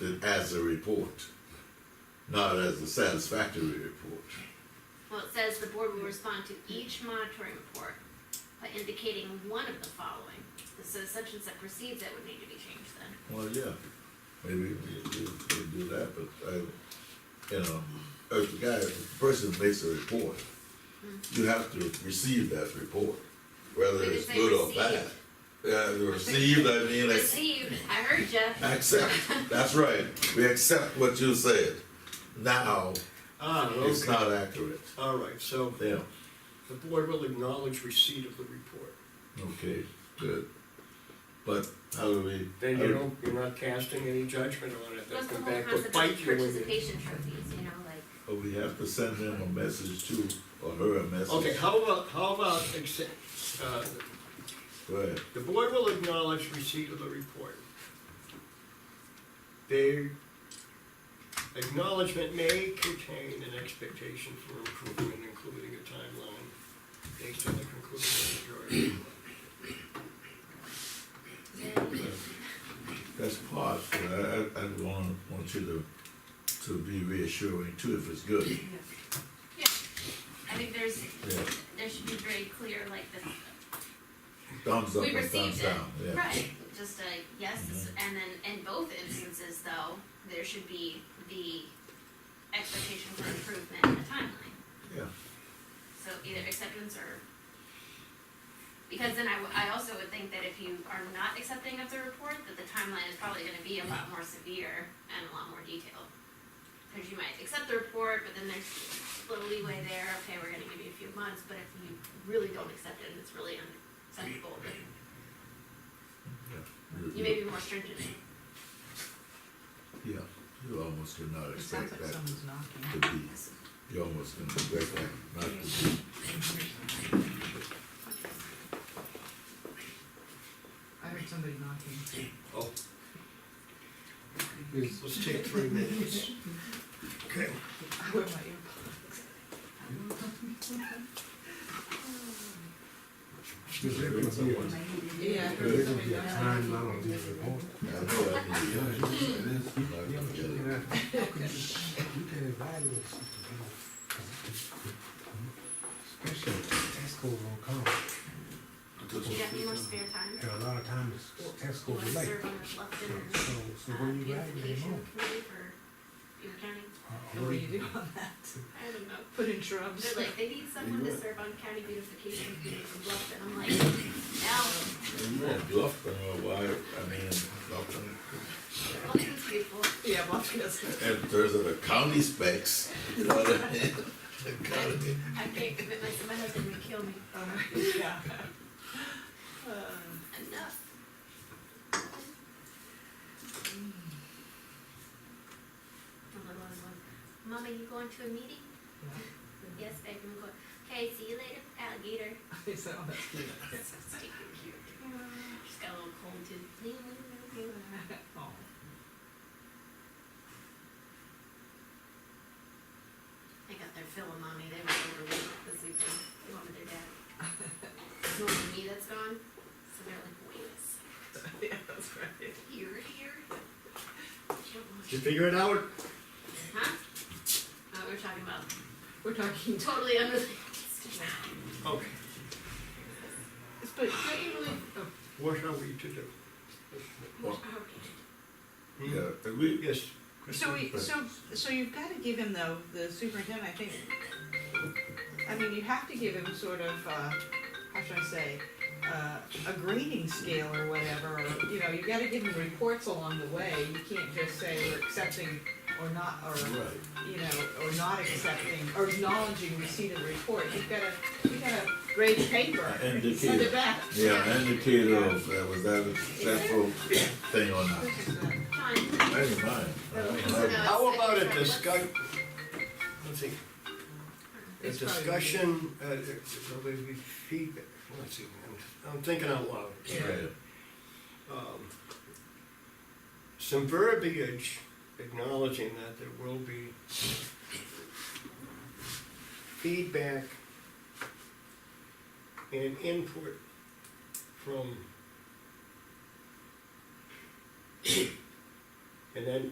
it as a report, not as a satisfactory report. Well, it says the board will respond to each monitoring report by indicating one of the following. So such and such perceived that would need to be changed then. Well, yeah, maybe we do, we do that, but I, you know, if the guy, if the person makes a report, you have to receive that report, whether Did it it's say good or received? bad. Yeah, received, I mean, like, Received, I heard ya. accept, that's right, we accept what you said. Now, Ah, it's okay. not accurate. All right, so Yeah. the board will acknowledge receipt of the report. Okay, good. But how do we? Then how you do- don't, you're not casting any judgment on it. They'll What's the come whole back to concept of bite you when you. participation trophies, you know, like, oh, We have to send them a message too, or her a message. Okay, how about, how about, accept- uh, Go ahead. the board will acknowledge receipt of the report. The acknowledgement may contain an expectation for improvement, including a timeline based on the conclusion of the majority. That's part, but I, I, I want, want you to, to be reassuring too if it's good. I think there's, Yeah, there should be very clear, like, the, thumbs up we or thumbs received it. down, yeah. Mm-hmm. Right, just a yes, this- and then in both instances though, there should be the expectation for improvement and a timeline. Yeah, So either acceptance or, because then I, w- I also would think that if you are not accepting of the report, that the timeline is probably gonna be a lot more severe and a lot more detailed. Cause you might accept the report, but then there's little leeway there, okay, we're gonna give you a few months, but if you really don't accept it and it's really unacceptable, then you may you, be more stringent. yeah, you almost cannot It expect sounds like that someone's knocking. to be, you almost can expect that not to be. I heard somebody knocking. Oh. Let's take three minutes. Okay. I wear my earplugs. Yeah. I heard somebody knocking. I know that means you're not gonna get it. Especially Tesco will come, You got any more spare time? and a lot of times Tesco You wanna will like, serve on the left in, so, so uh, when you ride in the beautification committee for your county? What do you morning. do on that? I don't know. Put in shrubs. They're like, they need someone to serve on county beautification committee for Bluffton. I'm like, no, Well, Bluffton, or why, I mean, Bluffton, Bluffton's beautiful. Yeah, well, I guess. in terms of the county specs, you know what I mean? The county. I can't commit myself, my husband would kill me. Uh, yeah. Uh, Enough. The little one, one, Mommy, you going to a meeting? yeah. Yes, babe, I'm going. Okay, see you later, alligator. So "Oh, that's cute. That's so stinking cute. She's got a little cold too. Oh. They got their fill of mommy, they went over this weekend, they went with their dad. It's only me that's gone, so they're like, wait a second, Yeah, that's right. you're here? She don't want Did you you. figure it out? Huh? Oh, we're talking about We're talking. to- totally unrelated stuff. Okay. It's- But don't you really? oh, What are we to do? Hmm? Well, Okay. Yeah, and we, Yes. So we, so, so you've got to give him though, the superintendent, I think, I mean, you have to give him sort of, uh, how should I say, uh, a grading scale or whatever, or, you know, you gotta give him reports along the way, you can't just say we're accepting or not, or, right, you know, or not accepting, or acknowledging receipt of the report, you've gotta, you gotta grade the paper, send it indicator, back. yeah, indicator of, uh, was that a successful thing or not. uh, Fine. I didn't mind. I didn't mind. How about a discuss, let's see, a It's probably- discussion, uh, there'll be feedback, let's see, I'm, I'm thinking out loud. Right. Um, Some verbiage acknowledging that there will be feedback and input from and then